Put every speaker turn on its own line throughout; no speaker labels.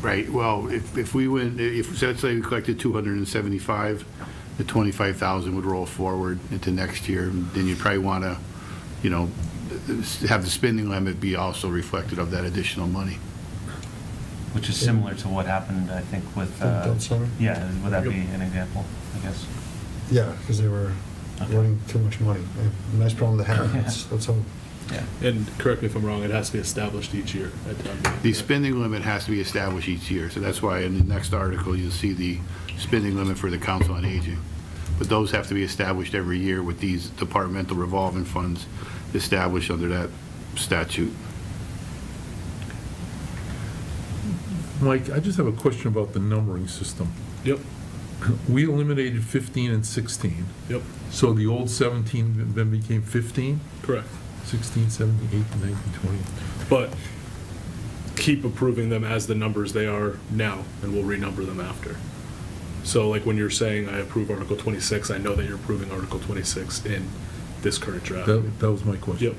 Right, well, if, if we went, if, so let's say we collected 275, the 25,000 would roll forward into next year, then you'd probably want to, you know, have the spending limit be also reflected of that additional money.
Which is similar to what happened, I think, with,
Downtown
uh,
Center?
yeah, would that be
Yep.
an example, I guess?
Yeah, because they were
Okay.
running too much money. A Nice problem to have.
Yeah.
That's, that's how,
Yeah.
And correct me if I'm wrong, it has to be established each year at town meeting.
The spending limit has to be established each year, so that's why in the next article, you'll see the spending limit for the Council on Aging. But those have to be established every year with these departmental revolving funds established under that statute.
Mike, I just have a question about the numbering system.
Yep,
We eliminated 15 and 16,
yep,
so the old 17 then became 15,
correct.
16, 17, 18, 19, 20.
But keep approving them as the numbers they are now, and we'll renumber them after. So like when you're saying, I approve Article 26, I know that you're approving Article 26 in this current draft.
That, that was my
Yep,
question.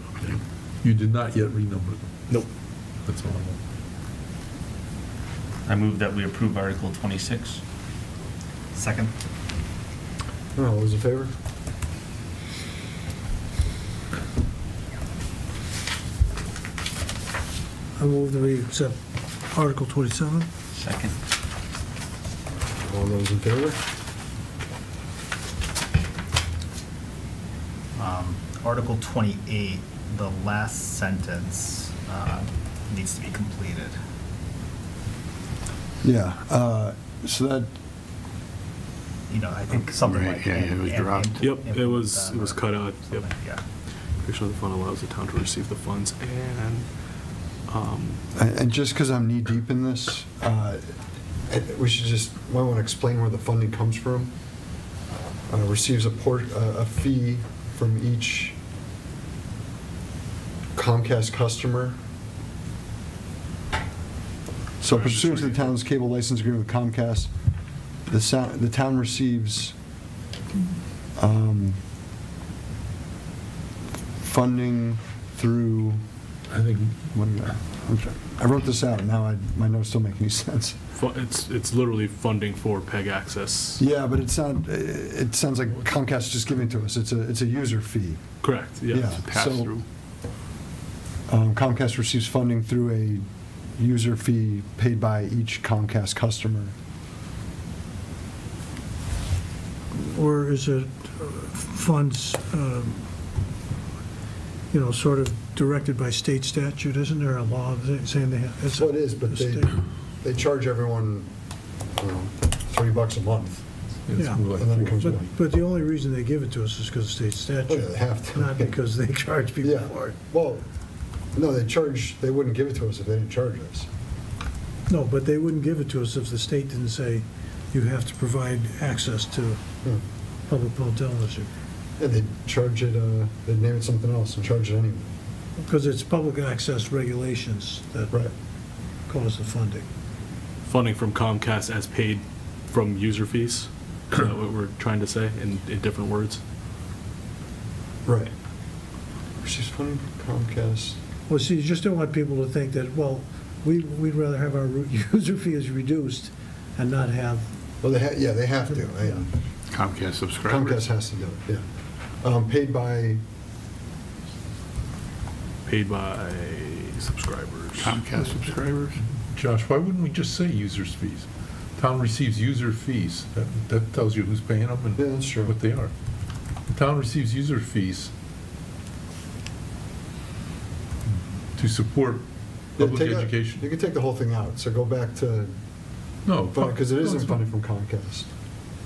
You did not yet renumber them,
nope,
that's all I want.
I move that we approve Article 26. Second.
no, all those in favor?
I move that we accept Article 27.
Second.
All those in favor?
Um, Article 28, the last sentence uh, needs to be completed.
Yeah, uh, so that,
You know, I think something
Right,
like.
yeah,
and-
yeah, it was
and
dropped.
Yep,
impl-
it
implement
was-
them
it was
or
cut out, yep.
something, Yeah.
creation of the fund allows the town to receive the funds and, um,
And and just because I'm knee-deep in this,
uh, I- we should just, might want to explain where the funding comes from. Uh, Receives a port, a a fee from each Comcast customer.
so pursuant to the town's cable license agreement with Comcast, the sound, the town receives um, funding through,
I think,
what did I, I'm sorry. I wrote this out, now I, my notes don't make any sense.
fu- it's, it's literally funding for PEG access.
Yeah, but it's not, i- it sounds like Comcast just giving it to us, it's a, it's a user fee.
Correct, yeah.
Yeah.
Pass-through.
Um, Comcast receives funding through a user fee paid by each Comcast customer.
Or is it uh, funds, um, you know, sort of directed by state statute? Isn't there a law that- saying they have? it's a-
Well, it is, but they,
state-
they charge everyone, I don't know, three bucks a month.
it's
Yeah.
more
And then it
like
comes
four.
But, but the only reason they give it to us is because of state
Oh,
statute.
yeah, they have to.
Not because they charge people
Yeah,
for it.
well, no, they charge, they wouldn't give it to us if they didn't charge us.
No, but they wouldn't give it to us if the state didn't say, you have to provide access to
Hmm.
public mental illness.
Yeah, they'd charge it, uh, they'd name it something else and charge it anyway.
Because it's public access regulations that
Right.
cause the funding.
funding from Comcast as paid from user fees? Is that what we're trying to say in, in different words?
Right. Receives funding from Comcast.
Well, see, you just don't want people to think that, well, we, we'd rather have our user fees reduced and not have,
Well, they, ha- yeah, they have to. I-
Yeah.
Comcast subscribers.
Comcast has to do it, yeah. Um, Paid by,
Paid by subscribers.
Comcast subscribers?
Josh, why wouldn't we just say users' fees? Town receives user fees, that, that tells you who's paying them
Yeah, that's true.
and what they are. The town receives user fees to support
yeah,
public
take out-
education.
You can take the whole thing out, so go back to,
No. fuck,
because it
no,
isn't
it's fine.
funding from Comcast.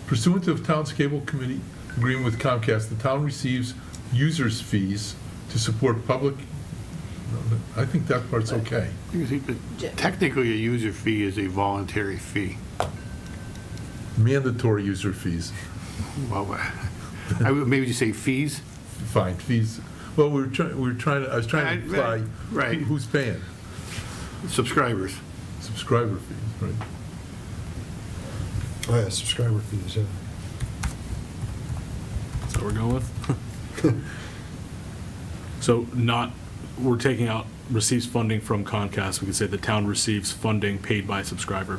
Pursuant to the town's cable committee agreement with Comcast, the town receives users' fees to support public, I think that part's okay.
You see, but Technically, a user fee is a voluntary fee.
Mandatory user fees,
Well, I would maybe just say fees.
fine, fees, well, we were trying, we were trying, to- I was trying to
Right, right,
imply
right.
who- who's paying,
Subscribers.
subscriber fees, right?
Oh, yeah, subscriber fees, yeah.
That's what we're going with? So not, we're taking out receives funding from Comcast, we could say the town receives funding paid by subscriber.